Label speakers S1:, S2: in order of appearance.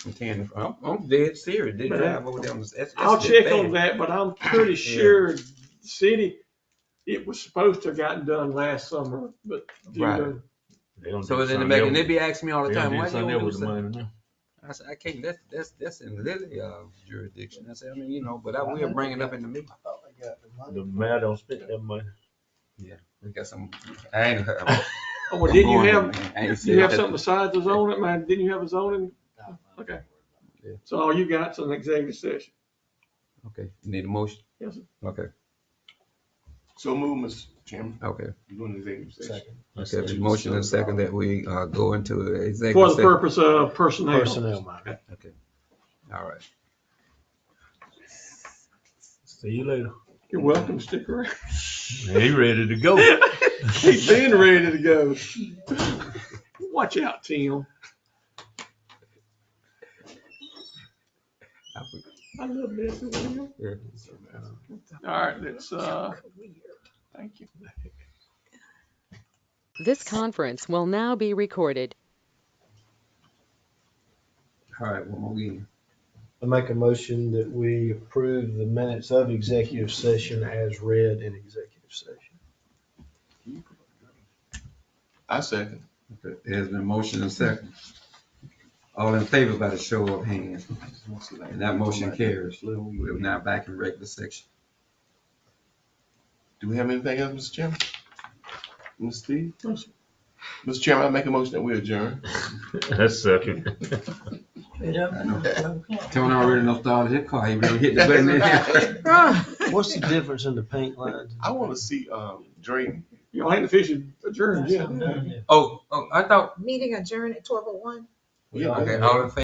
S1: I'm telling you, I'm, I'm dead serious. They
S2: Man.
S1: drive over there. on the- That's, that's
S2: I'll
S1: the
S2: check
S1: thing.
S2: on that, but I'm pretty sure the city, it was supposed to have gotten done last summer, but due
S1: Right.
S2: to,
S3: They don't
S1: So
S3: do
S1: it's in the
S3: something
S1: back,
S3: else.
S1: and they be asking me all the
S3: They don't
S1: time,
S3: do
S1: why you
S3: something
S1: don't
S3: else
S1: do
S3: with the
S1: something?
S3: money now.
S1: I said, I can't. That's that's that's in Lily uh, jurisdiction. I said, I mean, you know, but I
S4: I
S1: will
S4: know.
S1: bring it up in the meeting.
S4: I thought they got the money.
S3: The mayor don't spend that money.
S1: We got some. I ain't.
S2: oh, well, didn't you
S1: I'm going,
S2: have,
S1: man. I ain't
S2: you have
S1: serious.
S2: something besides the zoning, man? Didn't you have a zoning? Okay. So all you got's an executive session.
S1: Okay, you need a motion?
S2: Yes, sir.
S1: Okay,
S5: So move, Mr. Chairman,
S1: okay.
S5: you doing executive session.
S1: Okay, there's a motion and second that we uh, go into
S2: For
S1: executive
S2: the
S1: session.
S2: purpose of personnel.
S4: Personnel matter.
S1: All right.
S3: See you later.
S2: You're welcome to stick around.
S3: He ready to go.
S2: He's been ready to go. Watch out, Tim.
S1: I forgot.
S2: I love messing with him.
S1: Yeah.
S2: All right, let's, uh, thank you.
S6: This conference will now be recorded.
S1: All right, one more again.
S4: I make a motion that we approve the minutes of executive session as read in executive session.
S5: I second.
S1: Okay, There's been motion and second. All in favor by the show of hands, and that motion carries. We're now back in regular section.
S5: Do we have anything else, Mr. Chairman? Ms. Steve? Mr. Chairman, I make a motion that we adjourn.
S3: That's second.
S1: I know. Tony already knows all his car, he really hit the button in here.
S4: What's the difference in the paint lines?
S5: I want to see, um, Drayton.
S2: You all ain't officially adjourned yet.
S1: Oh, oh, I thought,
S7: Meeting adjourned at twelve oh one.
S5: Yeah,
S1: okay, all in favor?